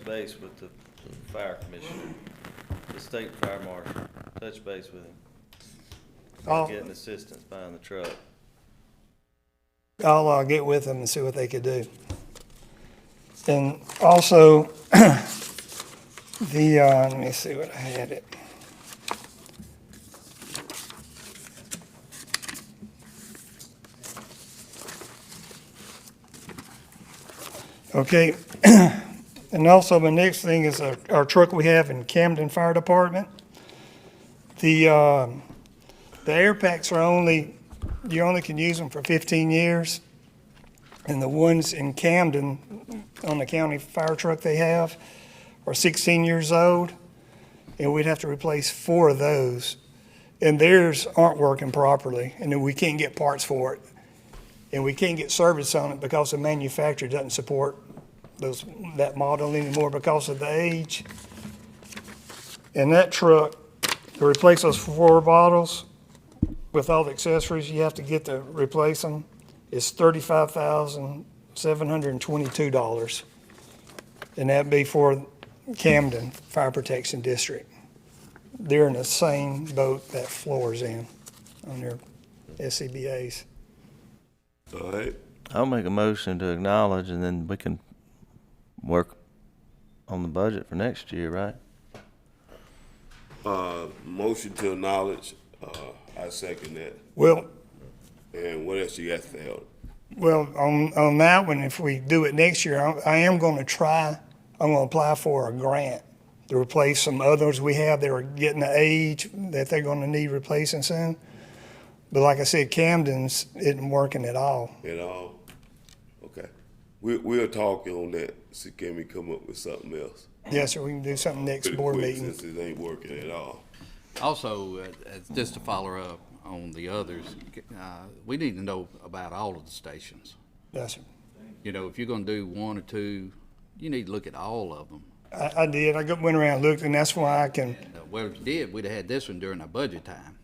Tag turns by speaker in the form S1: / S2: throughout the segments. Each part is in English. S1: base with the fire commissioner, the state fire marshal, touch base with him.
S2: I'll,
S1: Getting assistance buying the truck.
S2: I'll uh, get with them and see what they could do. And also, the, uh, let me see what I had it. Okay, and also the next thing is our our truck we have in Camden Fire Department. The, um, the air packs are only you only can use them for 15 years. And the ones in Camden, on the county fire truck they have, are 16 years old. And we'd have to replace four of those. And theirs aren't working properly, and then we can't get parts for it. And we can't get service on it because the manufacturer doesn't support those, that model anymore because of the age. And that truck, to replace those four bottles, with all the accessories you have to get to replace them is thirty-five thousand, seven hundred and twenty-two dollars. And that'd be for Camden Fire Protection District. They're in the same boat that Floor's in on their E SCBA's.
S3: All right,
S1: I'll make a motion to acknowledge and then we can work on the budget for next year, right?
S3: uh, motion to acknowledge, uh, I second that.
S2: Well,
S3: And what else you got to help?
S2: Well, on, on that one, if we do it next year, I- I am gonna try, I'm gonna apply for a grant to replace some others we have that are getting the age that they're gonna need replacing soon. But like I said, Camden's isn't working at all.
S3: And all, okay. We, we'll talk on that, see can we come up with something else?
S2: Yes, sir, we can do something next
S3: Pretty
S2: board
S3: quick,
S2: meeting.
S3: Since it ain't working at all.
S4: Also, uh, uh, just to follow up on the others, uh, we need to know about all of the stations.
S2: Yes, sir.
S4: You know, if you're gonna do one or two, you need to look at all of them.
S2: I, I did, I go- went around, and looked, and that's why I can,
S4: Uh, Well, if you did, we'd have had this one during our budget time.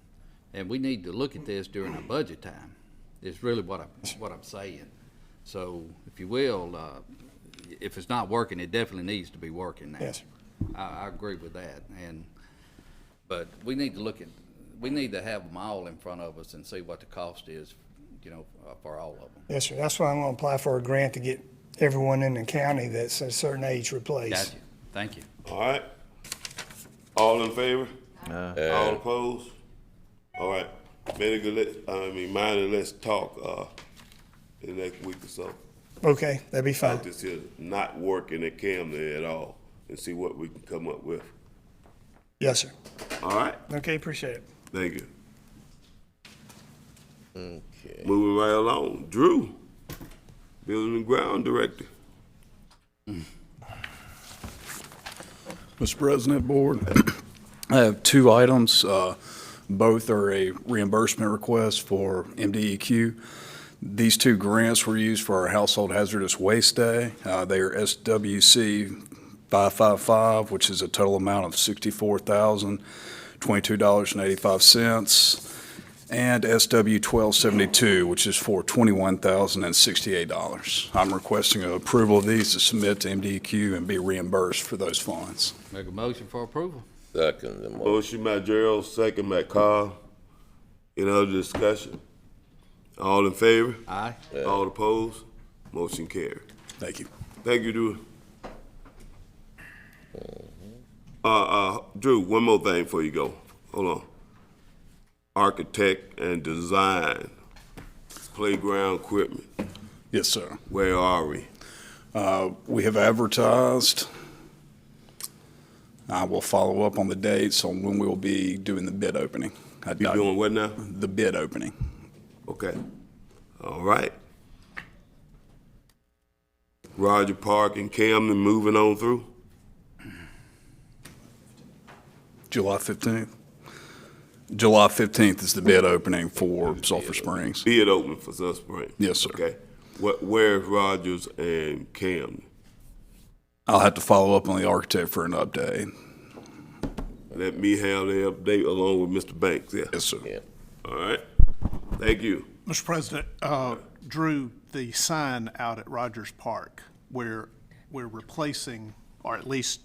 S4: And we need to look at this during our budget time, is really what I'm, what I'm saying. So, if you will, uh, if it's not working, it definitely needs to be working now.
S2: yes, sir.
S4: I, I agree with that, and, but we need to look at, we need to have them all in front of us and see what the cost is, you know, uh, for all of them.
S2: yes, sir, that's why I'm gonna apply for a grant to get everyone in the county that's a certain age replaced.
S4: Got you, thank you.
S3: All right? All in favor? All opposed? All right, very good, let, I mean, mind and let's talk, uh, in the next week or so.
S2: Oh. Okay, that'd be fine.
S3: About this here not working at Camden at all, and see what we can come up with.
S2: Yes, sir.
S3: All right?
S2: Okay, appreciate it.
S3: Thank you. Okay. Moving right along, Drew, Building and Ground Director.
S5: Mr. President, Board, I have two items. Uh, Both are a reimbursement request for MDEQ. These two grants were used for our Household Hazardous Waste Day. Uh, They are SWC 555, which is a total amount of $64,022.85, and SW 1272, which is for $21,068. I'm requesting approval of these to submit to MDEQ and be reimbursed for those funds.
S4: Make a motion for approval?
S6: Second the motion.
S3: Motion by Gerald, second by Carl. Any other discussion? All in favor?
S4: Aye.
S3: All opposed? Motion carried.
S5: Thank you.
S3: Thank you, Drew. Uh, uh, Drew, one more thing before you go. Hold on. Architect and design, playground equipment,
S5: Yes, sir.
S3: where are we?
S5: Uh, We have advertised. I will follow up on the dates on when we will be doing the bid opening. I-
S3: You doing what now?
S5: The bid opening.
S3: Okay. All right. Roger Park and Camden moving on through.
S5: July 15th? July 15th is the bid opening for Sulphur Springs.
S3: Bid open for Sunspring.
S5: Yes, sir.
S3: Okay. What, where's Rogers and Camden?
S5: I'll have to follow up on the architect for an update.
S3: Let me have the update along with Mr. Banks, yeah.
S5: Yes, sir.
S3: All right. Thank you.
S7: Mr. President, uh, Drew, the sign out at Rogers Park, where we're replacing or at least